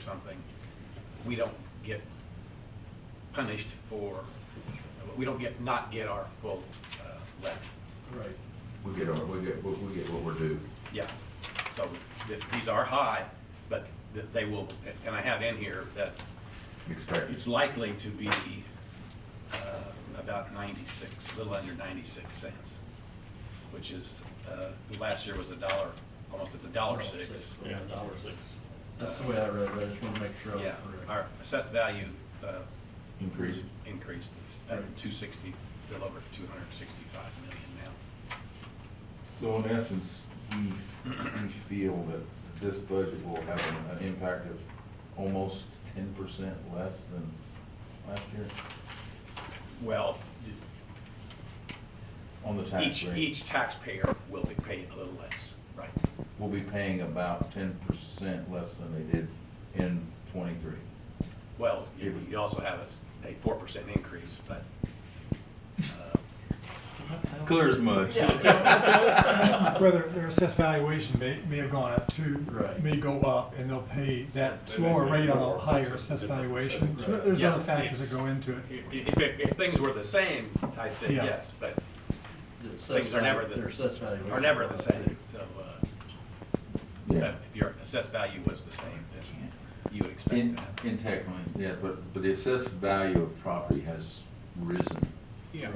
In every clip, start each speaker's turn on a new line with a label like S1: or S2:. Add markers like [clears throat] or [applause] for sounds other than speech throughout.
S1: something, we don't get punished for, we don't get, not get our full uh, levy.
S2: Right.
S3: We get, our- we get, we we get what we're due.
S1: Yeah, so th- these are high, but th- they will, and I have in here that
S3: Expect,
S1: it's likely to be uh, about 96, a little under 96 cents, which is, uh, last year was a dollar, almost at the dollar six.
S4: Yeah, dollar six.
S2: That's the way I read it, I just wanna make sure I was
S1: Yeah,
S2: correct.
S1: our assessed value uh,
S3: increase.
S1: increased, it's at
S2: Right.
S1: 260, a little over 265 million now.
S3: So in essence, we, we feel that this budget will have an- an impact of almost ten percent less than last year
S1: Well,
S3: on the tax
S1: each,
S3: rate.
S1: each taxpayer will be paid a little less, right?
S3: We'll be paying about ten percent less than they did in twenty-three.
S1: Well, you you also have a s- a 4% increase, but uh,
S4: Clear as mud.
S2: [laughs]
S5: Whether their assessed valuation may, may have gone up too,
S2: Right.
S5: may go up, and they'll pay that
S4: They may
S5: slower
S4: pay
S5: rate on
S4: more,
S5: a higher
S4: it's a
S5: assessed
S4: different
S5: valuation.
S2: percentage.
S5: So There's
S1: Yeah,
S5: other factors that
S1: it's-
S5: go into it.
S1: If, if, if things were the same, I'd say
S5: Yeah.
S1: yes, but
S2: The assessed
S1: things are never
S2: value-
S1: the,
S2: their assessed valuation.
S1: are never the same, so, uh,
S3: Yeah.
S1: but if your assessed value was the same, then you would expect
S3: In,
S1: that.
S3: in technically, yeah, but, but the assessed value of property has risen.
S1: Yeah,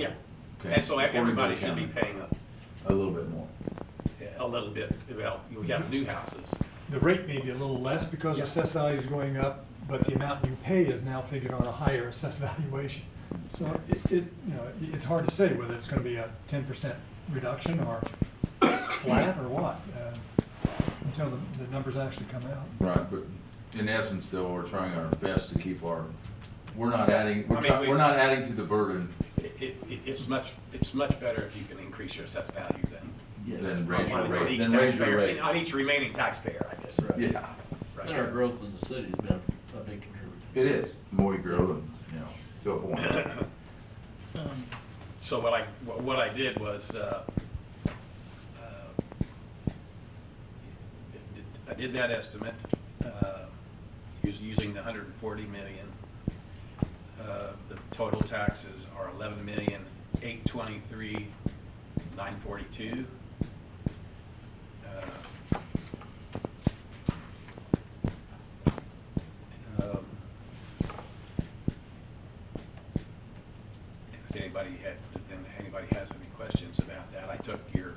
S3: okay,
S1: and so
S3: according to
S1: everybody
S3: the
S1: should be
S3: county,
S1: paying a,
S3: A little bit more.
S1: a little bit, well, you have new houses,
S5: The rate may be a little less because
S1: Yeah.
S5: assessed value is going up, but the amount you pay is now figured on a higher assessed [laughs] valuation. So it, it, you know, it- it's hard to say whether it's gonna be a ten percent reduction or flat or what, uh, until the, the numbers actually come out.
S3: Right, but in essence, though, we're trying our best to keep our, we're not adding,
S1: I
S3: we're
S1: mean,
S3: try-
S1: we-
S3: we're not adding to the burden
S1: it, it, it's much, it's much better if you can increase your assessed value than.
S2: Yes.
S3: than raise your
S1: on
S3: rate,
S1: each
S3: than raise
S1: taxpayer-
S3: your rate.
S1: On each remaining taxpayer, I guess.
S2: Right.
S3: Yeah,
S1: Right. [clears throat]
S2: And our growth in the city's been a big contributor.
S3: it is, the more you grow, and, you know, to a
S1: [coughs]
S3: point.
S1: So what I, what what I did was, uh, uh, I did that estimate, uh, us- using the hundred and forty million. Uh, The total taxes are eleven million, eight twenty-three, nine forty-two. If anybody had, then anybody has any questions about that, I took your,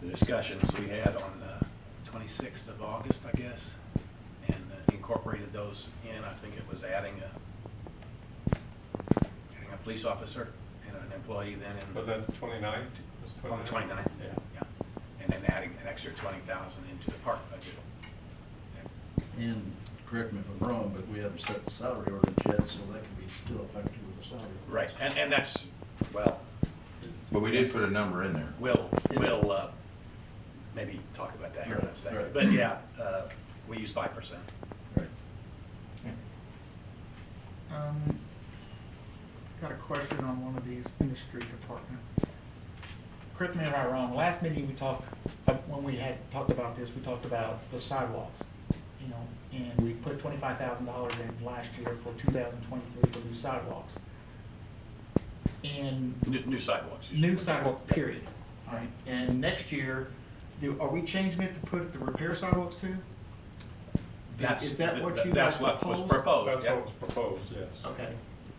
S1: the discussions we had on the twenty-sixth of August, I guess, and uh, incorporated those in, I think it was adding a, adding a police officer and an employee then in.
S4: Was that twenty-nine?
S1: On the twenty-ninth?
S4: Yeah.
S1: And then adding an extra twenty thousand into the park budget.
S2: And, correct me if I'm wrong, but we haven't set the salary ordinance yet, so that could be still effective with the salary. ordinance.
S1: Right, and, and that's, well,
S3: But we did put a number in there.
S1: we'll, we'll, uh, maybe talk about that here in a second.
S2: Right.
S1: But yeah, uh, we use five percent.
S2: Right.
S6: Um, Got a question on one of these ministry department. Correct me if I'm wrong, last meeting we talked, uh, when we had talked about this, we talked about the sidewalks, you know, and we put twenty-five thousand dollars in last year for two thousand twenty-three for new sidewalks. And
S1: New, new sidewalks. you
S6: new
S1: should-
S6: sidewalk, period, all right? And next year, do, are we changing it to put the repair sidewalks too?
S1: That's,
S6: Is that what you
S1: that's
S6: guys
S1: what was proposed,
S6: proposed?
S4: That's
S1: Oh, yeah.
S4: what was proposed, yes.
S6: Okay,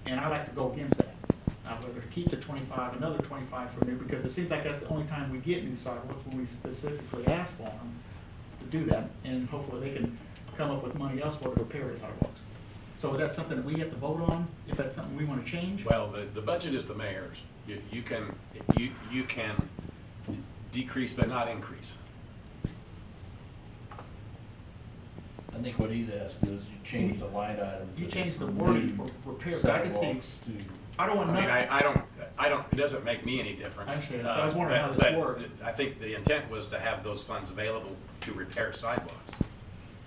S6: and I like to go against that. I'm going to keep the twenty-five, another twenty-five for new, because it seems like that's the only time we get new sidewalks, when we specifically ask for them to do that, and hopefully they can come up with money elsewhere to repair the sidewalks. So is that something that we have to vote on, if that's something we want to change?
S1: Well, the, the budget is the mayor's. You, you can, you, you can decrease but not increase.
S2: I think what he's asking is you change the line item.
S6: You
S2: to-
S6: change the
S2: from
S6: wording
S2: new
S6: for repair, but I can see,
S2: sidewalks to-
S6: I don't
S1: I
S6: want
S1: mean,
S6: nothing,
S1: I, I don't, I don't, it doesn't make me any difference.
S6: I understand. So I was
S1: Uh,
S6: wondering how
S1: but-
S6: this
S1: but
S6: works.
S1: I think the intent was to have those funds available to repair sidewalks.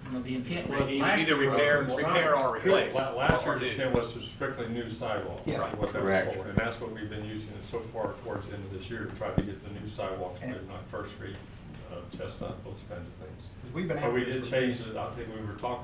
S6: you know, the intent
S1: Either-
S6: was last
S1: Either
S6: year. was
S1: repair,
S6: more
S1: repair
S6: sidewalks.
S1: or replace.
S4: La- Last
S1: or
S4: year's
S1: do.
S4: intent was to strictly new sidewalks,
S6: Yes.
S4: is what that
S3: Correct.
S4: was for, and that's what we've been using it so far towards the end of this year, to try to get the new sidewalks, but not First Street, uh, Chestnut, those kinds of things.
S6: we've been.
S4: But we
S6: after this
S4: did
S6: for-
S4: change it, I think we were talking